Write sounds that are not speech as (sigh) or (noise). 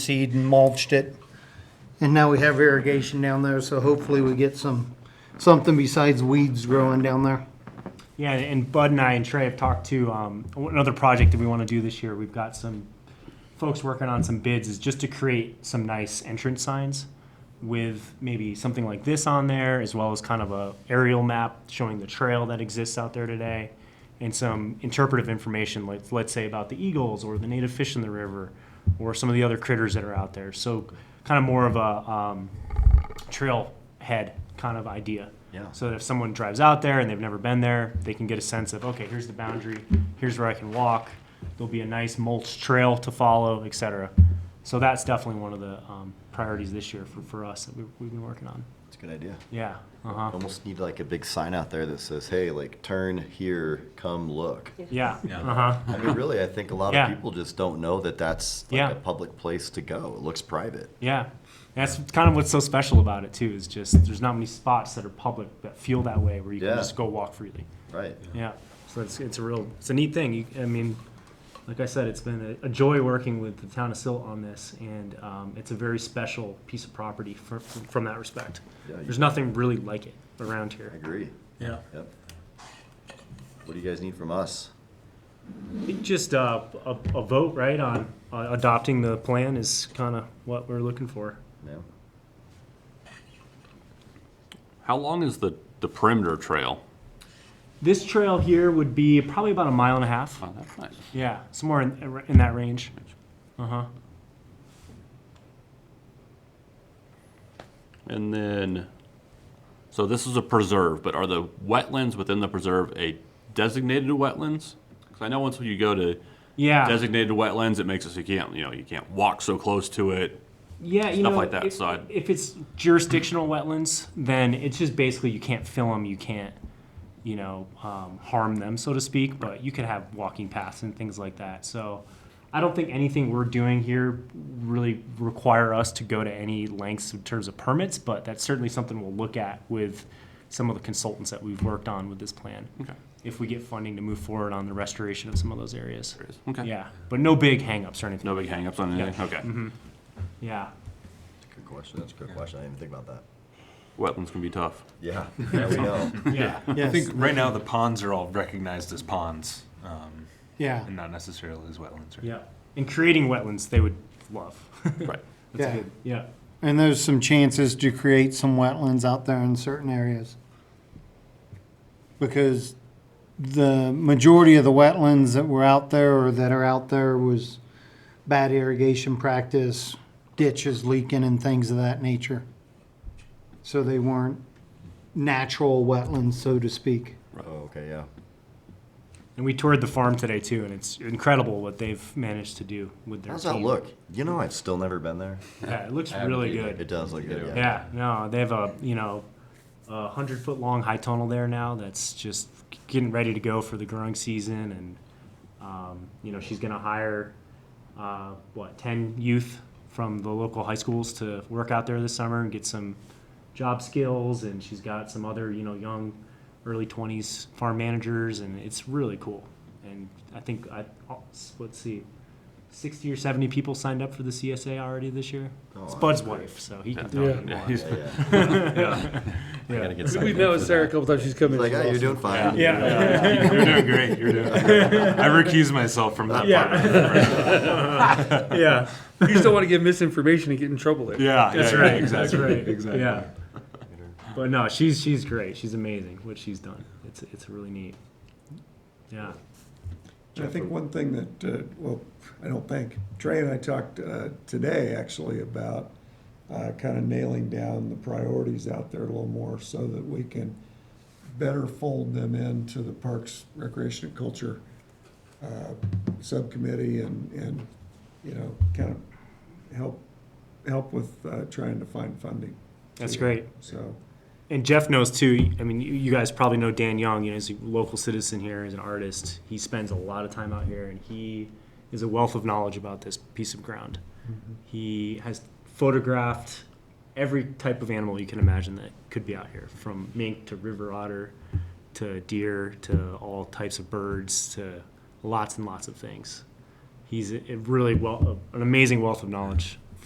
seed and mulched it. And now we have irrigation down there, so hopefully we get some, something besides weeds growing down there. Yeah, and Bud and I and Trey have talked to um, another project that we want to do this year. We've got some folks working on some bids, is just to create some nice entrance signs with maybe something like this on there, as well as kind of a aerial map showing the trail that exists out there today, and some interpretive information, like let's say about the eagles or the native fish in the river, or some of the other critters that are out there. So, kind of more of a um, trailhead kind of idea. Yeah. So that if someone drives out there and they've never been there, they can get a sense of, okay, here's the boundary, here's where I can walk. There'll be a nice mulch trail to follow, et cetera. So that's definitely one of the um, priorities this year for, for us that we, we've been working on. It's a good idea. Yeah. Uh huh. Almost need like a big sign out there that says, "Hey, like turn here, come look." Yeah. Uh huh. I mean, really, I think a lot Yeah. of people just don't know that that's like Yeah. a public place to go. It looks private. Yeah. And that's kind of what's so special about it too. Is just there's not many spots that are public that feel that way where you Yeah. can just go walk freely. Right. Yeah. So it's, it's a real, it's a neat thing. You, I mean, like I said, it's been a, a joy working with the town of Silt on this, and um, it's a very special piece of property for, from that respect. Yeah, you- There's nothing really like it around I here. agree. Yeah. Yep. What do you guys need from us? I think just uh, a, a vote, right, on uh, adopting the plan is kind of what we're looking for. Yeah. How long is the, the perimeter trail? This trail here would be probably about a mile and a half. Oh, that's nice. Yeah, somewhere in, in that range. Uh huh. And then, so this is a preserve, but are the wetlands within the preserve a designated wetlands? Because I know once you go to Yeah. designated wetlands, it makes it so you can't, you know, you can't walk so close to it. Yeah, you stuff know, like that If, side. if it's jurisdictional wetlands, then it's just basically you can't fill them, you can't, you know, um, harm them, so to speak. But you could have walking paths and things like that. So, I don't think anything we're doing here really require us to go to any lengths in terms of permits. But that's certainly something we'll look at with some of the consultants that we've worked on with this plan. Okay. If we get funding to move forward on the restoration of some of those areas. There it is. Okay. Yeah, but no big hangups or anything. No big hangups on anything? Okay. Yeah. Good question. That's a good question. I didn't even think about that. Wetlands can be tough. Yeah. (laughs) Yeah, we know. Yeah. I Yes, think right now the ponds are all recognized as ponds, um, yeah. and not necessarily as wetlands. Right? Yeah, and creating wetlands they would love. (laughs) Right. Yeah. yeah, And there's some chances to create some wetlands out there in certain areas. Because the majority of the wetlands that were out there or that are out there was bad irrigation practice, ditches leaking and things of that nature. So they weren't natural wetlands, so to speak. Oh, okay. Yeah. and we toured the farm today too, and it's incredible what they've managed to do with their. How's that team. look? You know, I've still never been there. Yeah, it looks really It good. does look good. Yeah. Yeah, no, they have a you know, a hundred foot long high tunnel there now that's just getting ready to go for the growing season, and um, you know she's gonna hire uh, what ten youth from the local high schools to work out there this summer and get some job skills and she's got some other you know young early 20s farm managers and it's really cool and i think i oh, s- let's see 60 or 70 people signed up for the csa already this year Oh, it's wow. bud's wife so he can tell Yeah. you Yeah, more. he's- Yeah. yeah. Yeah. Gotta get We've signed met up with for Sarah a that. couple times. She's come in. Like, She's yeah, you're awesome. doing fine. Yeah. You're doing great. You're doing. Great. I recuse myself from that part. Of (laughs) it. yeah (laughs) You just don't want to give misinformation and get in trouble there. Yeah, that's yeah, yeah, right exactly. that's right Exactly. yeah but no she's she's great she's amazing what she's done it's it's really neat yeah I think one thing that, uh, well, I don't think, Trey and I talked uh, today actually about kind of nailing down the priorities out there a little more so that we can better fold them into the Parks Recreation and Culture uh, Subcommittee and, and, you know, kind of help, help with uh, trying to find funding. that's great So, And Jeff knows too. I mean, you, you guys probably know Dan Young. You know, he's a local citizen here. He's an artist. He spends a lot of time out here, and he is a wealth of knowledge about this piece of ground. He has photographed every type of animal you can imagine that could be out here, from mink to river otter to deer to all types of birds to lots and lots of things. He's a, a really well, an amazing wealth of knowledge